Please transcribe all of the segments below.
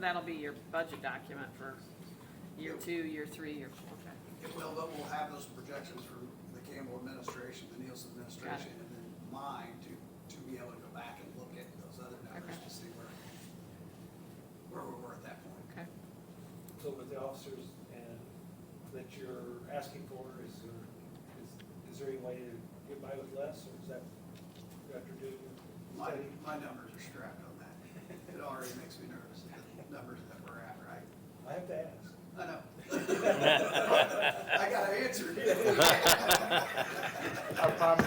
that'll be your budget document for year two, year three, year four, okay. It will, but we'll have those projections for the Campbell administration, the Nielsen administration, and then mine to, to be able to go back and look at those other numbers Okay. to see where, where we were at that point. Okay, So with the officers and that you're asking for, is there, is, is there any way to get by with less, or is that after doing your My, study? my numbers are strapped on that. It already makes me nervous, the numbers that we're at, right? I have to ask. I know. I gotta answer. I promise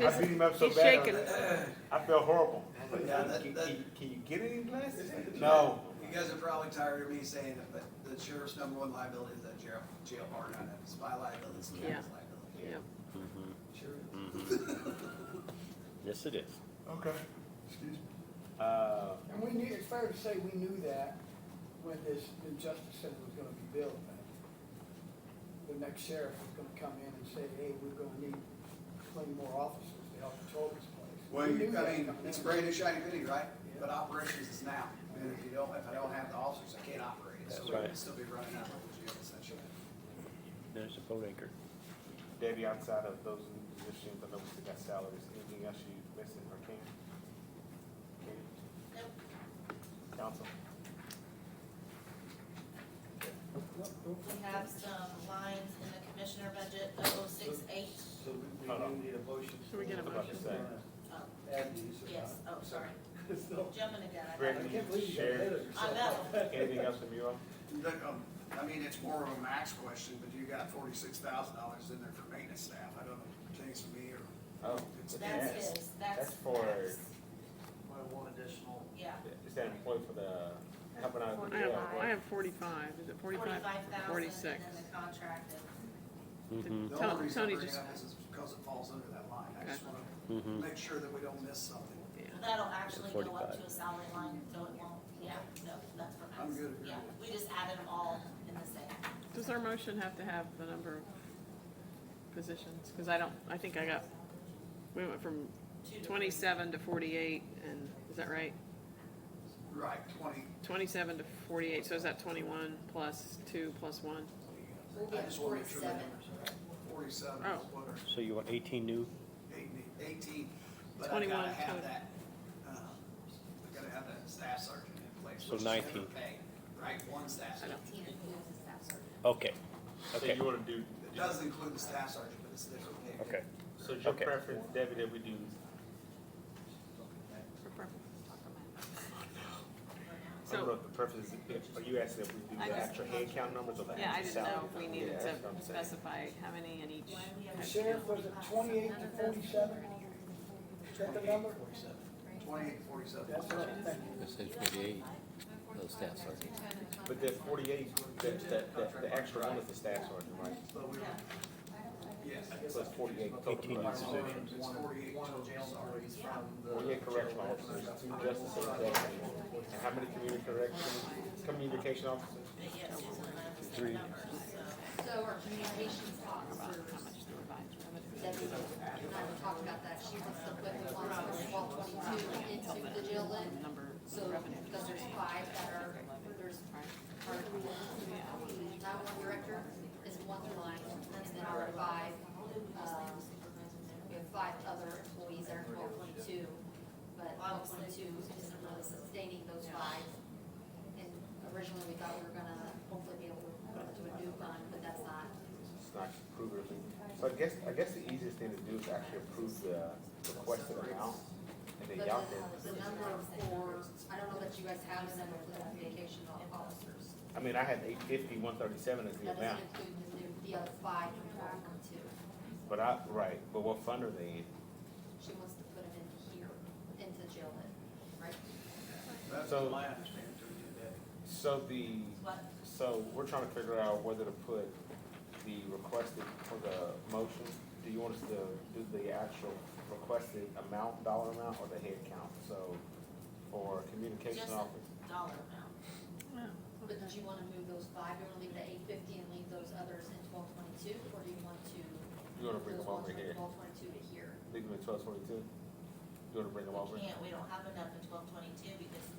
you, I beat him up so He's bad, shaking. on that. I feel horrible. Yeah, that- Can, that- can- can you get any glasses? No. You guys are probably tired of me saying it, but the sheriff's number one liability is that jail, jail bar, not it. It's my liability, it's the county's liability. yeah. Sure is. Yes, it is. Okay. Uh, And we knew, it's fair to say we knew that when this new justice center was gonna be built. The next sheriff was gonna come in and say, hey, we're gonna need plenty more officers to help patrol this place. Well, We knew you, that I mean, coming it's in. brand new shiny penny, right? But operations is now, and if you don't, if I don't have the officers, I can't operate, it. so That's we can right. still be running out of the jail essentially. There's a boat anchor. Debbie, outside of those new positions, I know we still got salaries, anything else you missing or can? Nope. Council? We have some lines in the commissioner budget, oh, six, eight, So we, we Hold on. do need a motion. Can we get a to motion? oh, Add these. or yes, not. oh, sorry, So, jumping again. I I Great. thought- can't believe you got ahead of I yourself. know, Anything else from you all? Look, um, I mean, it's more of a max question, but you got forty-six thousand dollars in there for maintenance staff, I don't know if it pertains to me or. Oh, It's- that's his, that's. That's for- that's- Well, one additional. Yeah, Is that employee for the, helping out with I the uh, have, jail? I have forty-five, is it forty-five? forty-five thousand, and Forty-six. then the contract of, Mhm, The Tony- only reason I Tony bring it just- up is it's because it falls under that line, I just wanna mhm. make sure that we don't miss something. Yeah. well, that'll actually go up 45. to a salary line, so it won't, yeah, no, that's for max. I'm good, good. Yeah, we just added them all in the same. Does our motion have to have the number of positions? Because I don't, I think I got, we went from two to- twenty-seven to forty-eight, and, is that right? Right, twenty, Twenty-seven to forty-eight, so is that twenty-one plus two plus one? We'll be I at just wanna make sure the forty-seven. numbers are right. Forty-seven is Oh. what our So you want eighteen new? Eighteen, eighteen, but I 21, gotta have 20. that, um, I gotta have that staff sergeant in place. So which is never 19. paid, Right, one staff I sergeant. don't, Tina, who is the staff sergeant? Okay, So okay, you wanna do? It does include the staff sergeant, but it's different pay. okay. So your Okay. preference, Debbie, that we do I don't so, know if the preference is, are you asking if we I do the just- actual head count numbers or the yeah, I actual didn't salary? know if we needed Yeah, to that's what I'm saying. specify how many in each. The sheriff was at twenty-eight to forty-seven, is that the number? Twenty-eight, forty-seven. That's what I'm thinking. It says forty-eight, those staff sergeants. But that forty-eight, that, that, that, the extra one is the staff sergeant, right? But we, yes. So it's forty-eight. Eighteen Our is one- It's forty-eight total jail sergeants from the. Forty-eight correction officers, two justice executives, and how many community correction, communication officers? But yeah, Susan and I have the same numbers, so. So our communications officer, Debbie, and I were talking about that, she wants to put the ones from twelve twenty-two into the jail lit. So, because there's five that are, there's, our, nine-one director is one line, and then our five, um, we have five other employees that are twelve twenty-two. But twelve twenty-two isn't really sustaining those five. And originally, we thought we were gonna hopefully be able to do a new fund, but that's not. It's not approved or anything. So I guess, I guess the easiest thing to do is actually approve the requested amount, and But then y'all can, the, the number for, I don't know that you guys have the number for the vacation officers. I mean, I had eight fifty, one thirty-seven as the That amount, doesn't include the new, the other five from twelve twenty-two. but I, right, but what fund are they in? She wants to put it into here, into jail lit, right? That's So- my understanding too, yeah. So the, What? so we're trying to figure out whether to put the requested for the motion. Do you want us to do the actual requested amount, dollar amount, or the head count? So for communication Just office, a dollar amount. But do you wanna move those five, do you wanna leave the eight fifty and leave those others in twelve twenty-two, or do you want to? you wanna bring them over here, Twelve twenty-two to here. leave them at twelve twenty-two? You wanna bring them over? We can't, we don't have enough in twelve twenty-two because